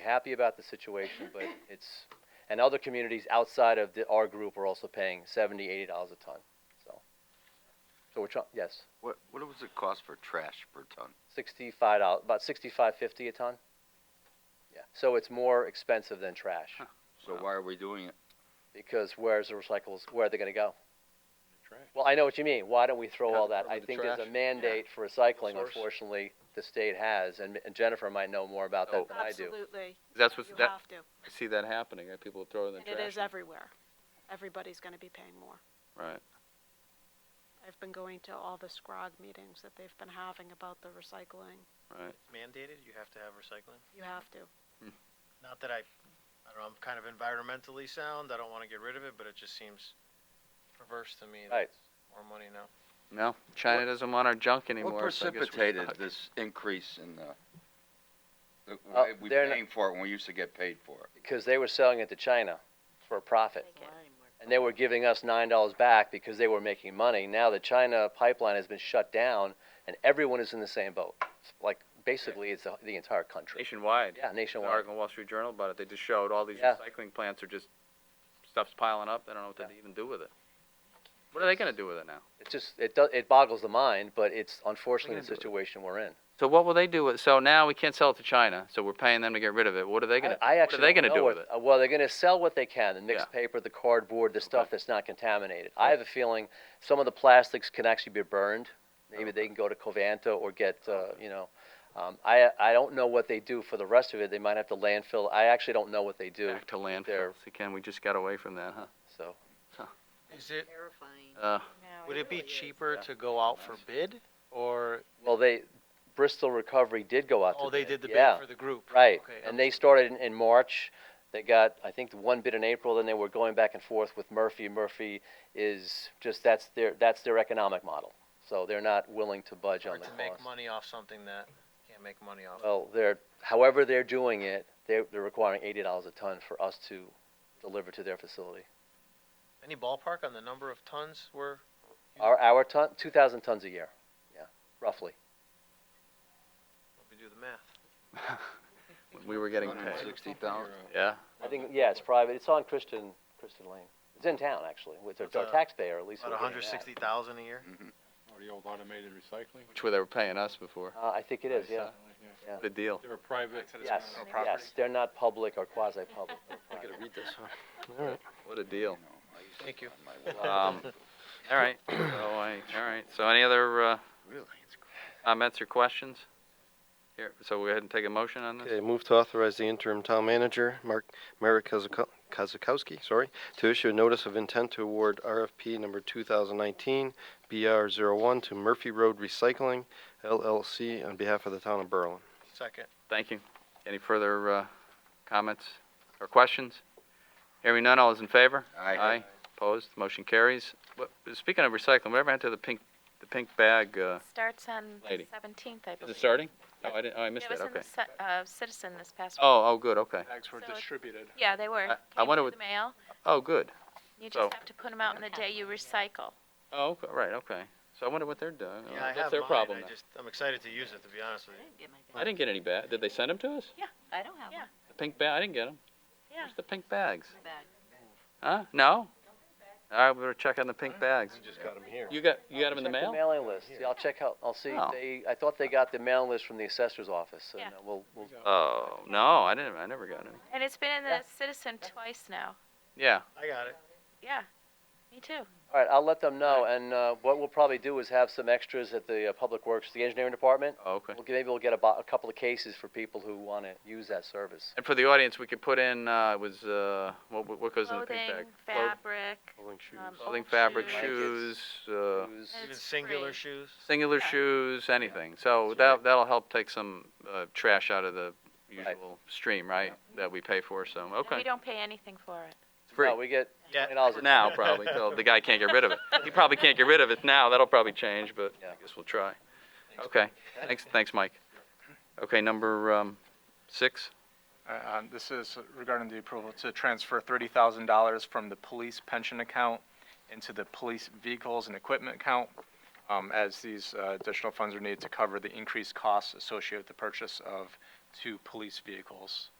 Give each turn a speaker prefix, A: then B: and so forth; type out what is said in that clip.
A: happy about the situation, but it's, and other communities outside of the, our group are also paying seventy, eighty dollars a ton, so. So we're trying, yes,
B: What what does it cost for trash per ton?
A: sixty-five dollars, about sixty-five fifty a ton. Yeah, so it's more expensive than trash,
B: Huh. So
C: Um,
D: Wow.
B: why are we doing it?
A: because where's the recyclables, where are they gonna go?
D: Trash.
A: Well, I know what you mean, why don't we throw
B: Cut
A: all
B: it
A: that,
B: from
A: I
B: the
A: think there's a
B: trash.
A: mandate for recycling,
D: Source.
A: unfortunately, the state has, and and Jennifer might know more about
B: Oh.
A: that than I do.
E: Absolutely.
B: That's what's
E: You
B: that.
E: have to.
B: I see that happening. That people throwing in
E: And
B: the trash.
E: it is everywhere. Everybody's going to be paying more.
B: Right.
E: I've been going to all the SCROG meetings that they've been having about the recycling.
B: Right.
C: mandated, you have to have recycling.
E: You have to.
C: Not that I, I don't know, I'm kind of environmentally sound, I don't wanna get rid of it, but it just seems perverse to me. that
A: Right.
C: it's More money now.
F: No, China doesn't want our junk
B: What
F: anymore. so I guess we're
B: precipitated
F: stuck.
B: this increase in the? the
A: Uh,
B: why we
A: they're not-
B: paying for it when we used to get paid for it.
A: because they were selling it to China for a profit. And they were giving us nine dollars back because they were making money. Now the China pipeline has been shut down, and everyone is in the same boat. It's Like basically, it's the, the entire country.
F: Nationwide.
A: Yeah,
F: The
A: nationwide.
F: article in Wall Street Journal about it. They just showed all these
A: Yeah.
F: recycling plants are just stuff's piling up. They don't know what
A: Yeah.
F: to even do with it. What are they going to do with it now?
A: It's just it does it boggles the mind, but it's unfortunately
F: We're
A: the
F: gonna do it.
A: situation we're in.
F: So what will they do with? So now we can't sell it to China. So we're paying them to get rid of it. What are they going to?
A: I, I
F: What
A: actually
F: are they
A: don't
F: going to
A: know
F: do
A: what-
F: with it?
A: uh, Well, they're going to sell what they can: the mixed paper, the cardboard, the stuff
F: Okay.
A: that's not contaminated. I have a feeling some of the plastics can actually be burned. Maybe they can go to Covanta or get, uh, you know, um, I I don't know what they do for the rest of it. They might have to landfill. I actually don't know what they do.
F: Back to
A: there.
F: landfills again. We just got away from that, huh?
A: So
C: Is it,
G: Terrifying.
F: Uh,
C: would it be cheaper
F: Yeah.
C: to go out for bid, or,
A: well, they Bristol Recovery did go out. to
C: oh, they
A: bid.
C: did the
A: yeah,
C: bid for the group?
A: right.
C: Okay,
A: and
C: I'm-
A: they started in, in March. They got I think one bid in April. Then they were going back and forth with Murphy. Murphy is just that's their that's their economic model. So they're not willing to budge on
C: Hard
A: the
C: to
A: cost.
C: make money off something that can't make money off.
A: Well, they're however they're doing it, they're, they're requiring eighty dollars a ton for us to deliver to their facility.
C: Any ballpark on the number of tons we're,
A: Our our ton two thousand tons a year, yeah, roughly.
C: let me do the math.
F: we were getting paid.
B: 160,000.
F: Yeah.
A: I think yeah, it's private. It's on Christian Christian Lane. It's in town actually. It's
C: That's
A: our
C: a-
A: taxpayer at least.
C: uh, About
A: we're getting
C: hundred
A: that.
C: sixty thousand a year?
B: Mm-hmm.
D: Or the old automated recycling.
F: Which where they were paying us before.
A: Uh, I think it is, yeah.
F: What a deal.
D: They're a private.
A: Yes, yes, they're not public or quasi-public. They're private.
F: read this one. What a deal.
C: Thank you.
F: Um, all right. So I, all right. So any other uh,
B: Really?
F: comments or questions? Here, so we will go ahead and take a motion on this.
H: Okay, move to authorize the interim town manager, Mark, Merrick Kozako- Kozakowski, sorry, to issue a notice of intent to award RFP number 2019 BR01 to Murphy Road Recycling LLC on behalf of the town of Berlin.
C: Second.
F: Thank you. Any further uh, comments or questions? Hearing none, all is in favor?
B: Aye.
F: Opposed? Motion carries. What, speaking of recycling, whatever happened to the pink, the pink bag? Uh,
I: Starts on
F: Lady.
I: seventeenth, I
F: is
I: believe.
F: it starting? Oh, I didn't. Oh, I missed
I: It was
F: that.
I: in the
F: Okay.
I: ci- uh, Citizen this past week.
F: Oh, oh, good. Okay.
D: Bags were
I: So it's-
D: distributed.
I: Yeah, they were.
F: I- I
I: Came
F: wonder
I: through
F: what-
I: the mail.
F: Oh, good.
I: You
F: so-
I: just have to put them out on the day you recycle.
F: Oh, okay. right. Okay. So I wonder what they're doing.
C: Yeah, I
F: That's
C: have
F: their
C: mine.
F: problem.
C: I
F: now.
C: just, I'm excited to use it, to be honest with
G: I
C: you.
G: didn't get my
F: I
G: bag.
F: didn't get any bag. Did they send them to us?
G: I don't have
I: Yeah.
G: one.
F: The pink bag. I didn't get them.
I: Yeah.
F: Where's the pink bags?
G: My bag.
F: Huh? No. All right, we're checking the pink bags.
C: Just got them here.
F: You got you got them in the
A: Check
F: mail?
A: mailing list. Yeah, I'll check out, I'll see.
F: Oh.
A: They, I thought they got the mailing list from the assessor's office, and
I: Yeah.
A: uh, we'll, we'll,
F: Oh no, I didn't. I never got any.
I: And it's been in
A: Yeah.
I: the Citizen twice now.
F: Yeah.
C: I got it.
I: Yeah, me too.
A: all right, I'll let them know, and, uh, what we'll probably do is have some extras at the, uh, Public Works, the engineering department.
F: Oh, okay.
A: We'll, get- maybe we'll get a bo- a couple of cases for people who wanna use that service.
F: And for the audience, we could put in uh, it was uh, what what- what goes in the
I: Clothing,
F: pink bag? Cloth-
I: fabric,
H: Rolling shoes.
I: um,
F: Clothing,
I: old
F: fabric,
I: shoes.
F: shoes,
A: Blankets.
F: uh,
A: Who's-
I: And
C: Even
I: it's
C: singular
I: free.
C: shoes.
F: singular
I: Yeah.
F: shoes, anything. So that that'll help take some uh, trash out of the usual stream, right? That we pay for. So
I: And We
F: okay,
I: don't pay anything for it.
F: it's free
A: No, we get
C: Yeah.
A: twenty dollars a ton.
F: For now probably. So the guy can't get rid of it. He probably can't get rid of it now. That'll probably change, but
A: Yeah.
F: I guess we'll try. Okay. Thanks, thanks, Mike. Okay, number um, six.
J: Uh, um, This is regarding the approval to transfer $30,000 from the police pension account into the police vehicles and equipment account, um, as these uh, additional funds are needed to cover the increased costs associated with the purchase of two police vehicles.